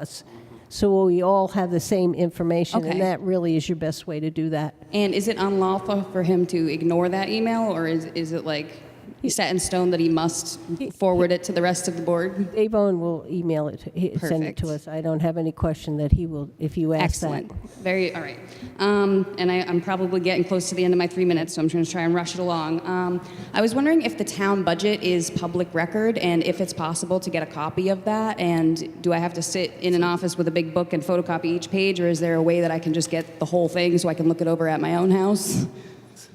us, so we all have the same information, Okay. and that really is your best way to do that. And is it unlawful for him to ignore that email, or is, is it like set in stone that he must forward it to the rest of the board? Dave Owen will email it, to- he- send it to Perfect. us. I don't have any question that he will, if you ask that. Excellent. Very, all right. Um, and I, I'm probably getting close to the end of my three minutes, so I'm going to try and rush it along. Um, I was wondering if the town budget is public record and if it's possible to get a copy of that. And do I have to sit in an office with a big book and photocopy each page, or is there a way that I can just get the whole thing so I can look it over at my own house?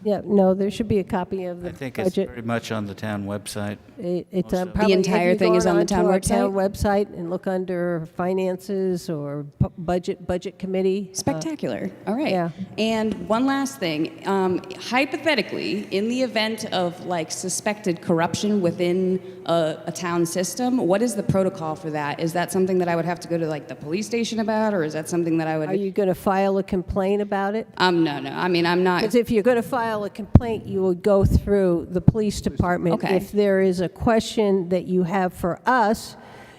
Yeah, no, there should be a copy of the I think it's budget. pretty much on the town website. It- It's on The probably- have entire you thing is gone on the onto town our website and look under finances or pu- budget, budget committee. Uh, Spectacular. All right. yeah. And one last thing. Um, hypothetically, in the event of like suspected corruption within a, a town system, what is the protocol for that? Is that something that I would have to go to like the police station about, or is that something that I would? Are you going to file a complaint about it? um, no, no. I mean, I'm not. Because if you're going to file a complaint, you would go through the police department. Okay. If there is a question that you have for us,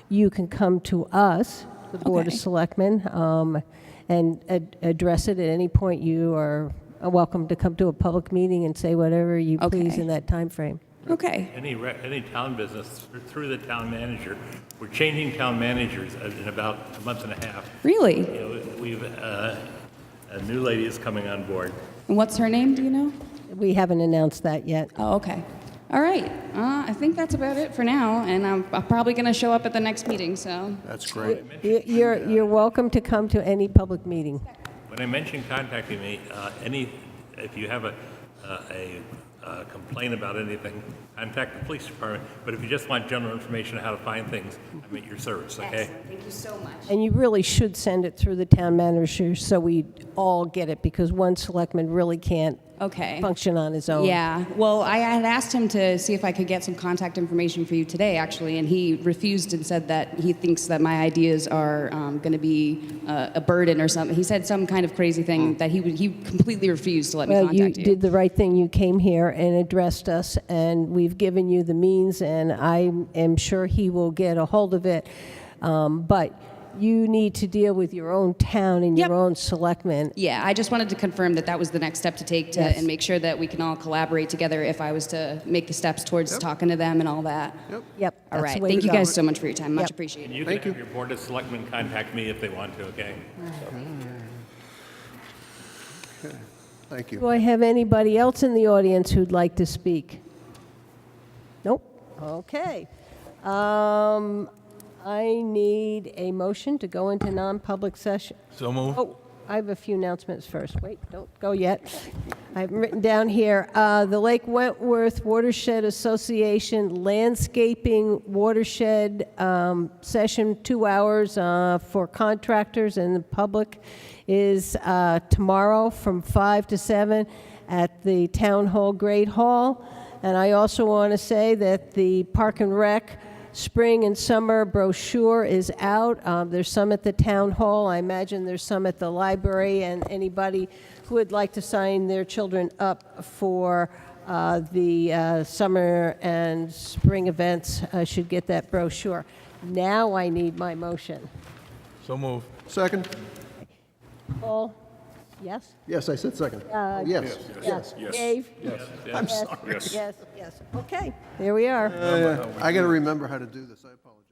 you can come to us, the Board of Okay. Selectmen, um, and ad- address it at any point. You are welcome to come to a public meeting and say whatever you please Okay. in that time frame. Okay. Any, re- any town business thr- through the town manager, we're changing town managers in about a month and a half. Really? You know, We've, uh, a new lady is coming on board. And what's her name? Do you know? We haven't announced that yet. Oh, okay. All right. Uh, I think that's about it for now, and I'm, I'm probably going to show up at the next meeting. So. That's great. You- You're, you're welcome to come to any public meeting. When I mentioned contacting me, uh, any, if you have a, uh, a uh, complaint about anything, contact the police department. But if you just want general information on how to find things, I'm at your service, okay? Excellent. Thank you so much. And you really should send it through the town manager so we all get it, because one selectman really can't Okay. function on his own. Yeah. Well, I had asked him to see if I could get some contact information for you today, actually, and he refused and said that he thinks that my ideas are um, going to be uh, a burden or something. He said some kind of crazy thing that he would, he completely refused to let me Hmm. Well, you contact you. did the right thing. You came here and addressed us, and we've given you the means, and I am sure he will get a hold of it. Um, But you need to deal with your own town and Yep. your own selectmen. yeah, I just wanted to confirm that that was the next step to take to Yes. and make sure that we can all collaborate together if I was to make the steps towards talking to them and all that. Yep. All that's the right. way Thank to you go. guys so much for your time. Much Yep. appreciated. And you can Thank have you. your board of selectmen contact me if they want to, okay? Thank you. Do I have anybody else in the audience who'd like to speak? Nope. Okay. Um, I need a motion to go into non-public session. So moved. Oh, I have a few announcements first. Wait, don't go yet. I have written down here, uh, the Lake Wentworth Watershed Association Landscaping Watershed um, Session, two hours uh, for contractors and the public, is uh, tomorrow from 5 to 7 at the Town Hall Great Hall. And I also want to say that the Park and Rec Spring and summer brochure is out. Um, There's some at the town hall. I imagine there's some at the library, and anybody who would like to sign their children up for uh, the uh, summer and spring events uh, should get that brochure. Now I need my motion. So moved. Second? Paul? Yes? Yes, I said second. Yes. Yes. Dave? Yes. I'm sorry. Yes, yes. Okay, there we are. I got to remember how to do this. I apologize.